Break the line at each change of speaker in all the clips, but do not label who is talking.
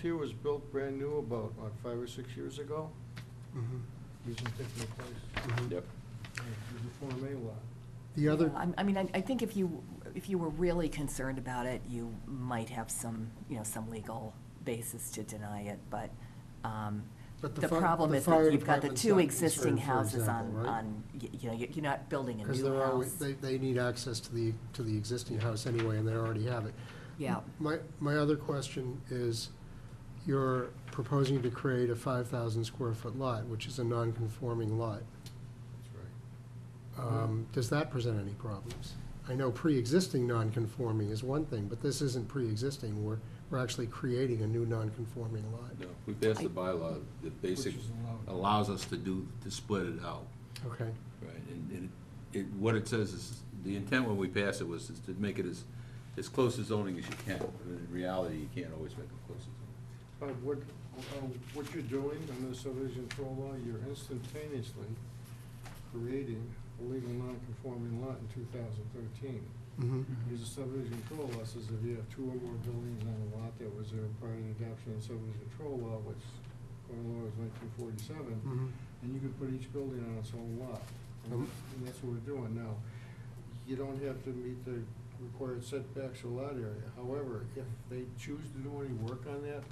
here was built brand new about, what, five or six years ago?
Mhm,
Using Tiffany Place.
mhm.
Yep.
It was a Form A lot.
The other,
Yeah, I'm- I mean, I I think if you, if you were really concerned about it, you might have some, you know, some legal basis to deny it, but um,
But the
the
fi-
problem
the
is
fire
that you've got the
department's
two
not
existing
concerned, for
houses on,
example, right?
on, y- you know, you're you're not building a
because
new
they're always,
house.
they, they need access to the, to the existing house anyway, and they already have it.
Yeah,
My, my other question is, you're proposing to create a five thousand square foot lot, which is a non-conforming lot.
That's right.
Um,
Mm-hmm.
Does that present any problems? I know pre-existing non-conforming is one thing, but this isn't pre-existing. We're, we're actually creating a new non-conforming lot.
No, we passed the bylaw that
Which
basically
is allowed.
allows us to do, to split it out,
Okay,
right? And, and it, what it says is, the intent when we passed it was is to make it as, as close to zoning as you can. But in reality, you can't always make it close to zoning.
But what, uh, what you're doing in the subdivision control law, you're instantaneously creating a legal non-conforming lot in two thousand thirteen.
mhm,
Because the subdivision control law says if you have two or more buildings on a lot that was there prior to the adoption of the subdivision control law, which, according to law, was nineteen forty-seven,
mhm.
and you could put each building on its own lot. And
Um.
and that's what we're doing now. You don't have to meet the required setbacks or lot area. However, if they choose to do any work on that,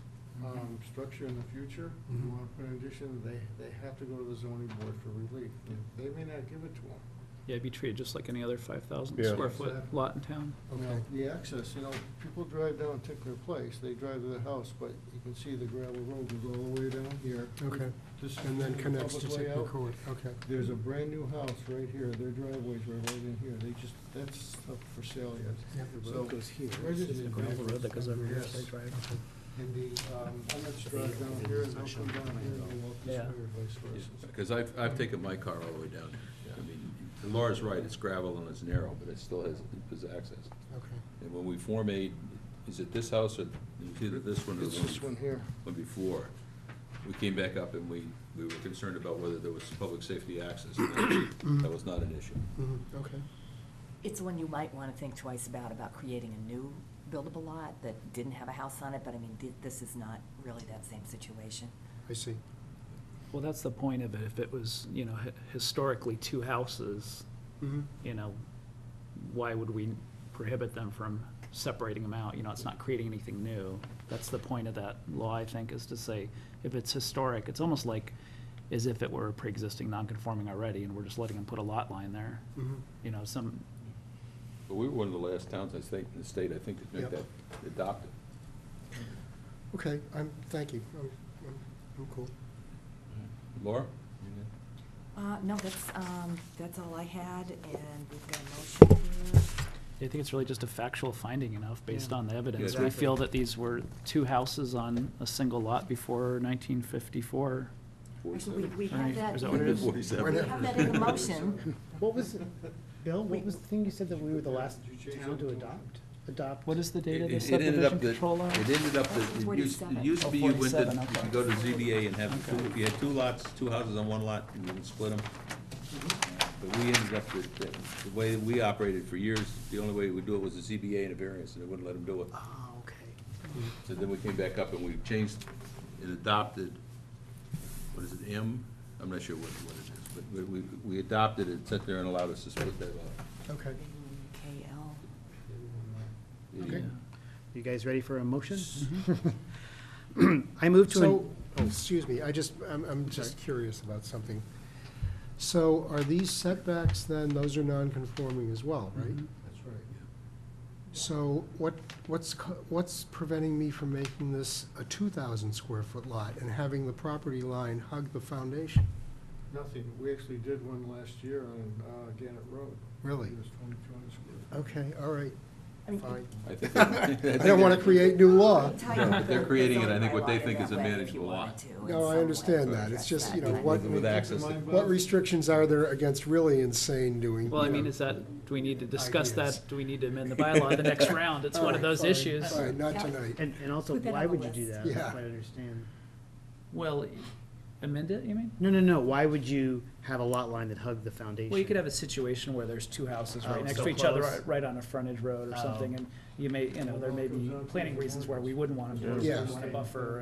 um, structure in the future, you
Mhm.
wanna put an addition, they, they have to go to the zoning board for relief. And They may not give it to them.
Yeah, it'd be treated just like any other five thousand
Yeah.
square foot
Exactly.
lot in town.
Okay.
The access, you know, people drive down Tickler Place, they drive to the house, but you can see the gravel road goes all the way down here.
Okay,
This is
and then
the
connects to
public way
Tickler
out.
Court, okay.
There's a brand-new house right here, their driveway's are right in here, they just, that's up for sale
Yeah,
yet.
the
Oh, So, residents in Yes. And the, um, I'm not sure down here, and they'll come down here, and walk this way,
Yeah.
or vice versa.
Because I've, I've taken my car all the way down. I mean, Laura's right, it's gravel and it's narrow, but it still has, it has access.
Okay,
And when we Form A, is it this house or, it's either this one or the
It's
one?
this one here.
one before, we came back up and we, we were concerned about whether there was public safety access. That was not an issue.
mhm, okay.
it's one you might want to think twice about, about creating a new buildable lot that didn't have a house on it, but I mean, thi- this is not really that same situation.
I see.
Well, that's the point of it. If it was, you know, hi- historically two houses,
Mhm.
you know, why would we prohibit them from separating them out? You know, it's not creating anything new. That's the point of that law, I think, is to say, if it's historic, it's almost like as if it were pre-existing non-conforming already, and we're just letting them put a lot line there.
Mhm.
You know, some,
But we were one of the last towns, I think, in the state, I think, to make that
Yep.
adopted.
Okay, I'm, thank you, I'm, I'm- I'm cool.
Laura?
Uh, no, that's, um, that's all I had, and we've got a motion here.
I think it's really just a factual finding enough, based on the evidence.
Yeah,
We
exactly.
feel that these were two houses on a single lot before nineteen fifty-four.
Actually, we, we
Right,
have that.
is that what it is?
We have that in the motion.
What was, Bill, what was the thing you said that we were the last town to adopt? Adopt?
What is the date of
It-
the
it ended up that-
subdivision control law?
It ended up that, it used, it
47.
used to
Oh,
be you went to,
47,
you
okay.
could go to ZBA and have, two-
Okay.
if you had two lots, two houses on one lot, and you would split them. But we ended up that, that the way that we operated for years, the only way we would do it was a ZBA and a variance, and they wouldn't let them do it.
Ah, okay.
So then we came back up and we changed and adopted, what is it, M? I'm not sure what, what it is, but we- we, we adopted it, sat there and allowed us to split that off.
Okay.
KL.
Yeah.
You guys ready for a motion? I move to.
Mm-hmm. So, oh,
an-
excuse me, I just, I'm, I'm just curious about something. So are these setbacks then, those are non-conforming as well,
Mm-hmm.
right?
That's right.
So what, what's, co- what's preventing me from making this a two thousand square foot lot and having the property line hug the foundation?
Nothing, we actually did one last year on, uh, Gannett Road.
Really?
It was twenty-two square.
Okay, all right,
I mean,
fine.
I think that-
I
think
don't want to
that-
create new law.
Tighten
but they're
the- the
creating it, I
zoning
think, what they
bylaw
think
in
is
that
a
way if
manageable
you
lot.
wanted to in
No, I
some way.
understand that. It's just, you know, what-
With access to-
What restrictions are there against really insane doing?
Well, I mean,
you know,
is that, do we need to discuss
Ideas.
that? Do we need to amend the bylaw the next round? It's one of
All right,
those
fine,
issues.
All right, not
Yeah.
tonight.
And, and also,
Put that
why
on the
would you
list.
do that? I
Yeah.
don't quite understand.
Well, amend it, you mean?
No, no, no, why would you have a lot line that hugged the foundation?
Well, you could have a situation where there's two houses
Oh,
right next
so
to each other,
close.
right- right on a frontage road or
Oh.
something, and you may, you know, there may be planning reasons where we wouldn't want them to,
Yeah.
we want to buffer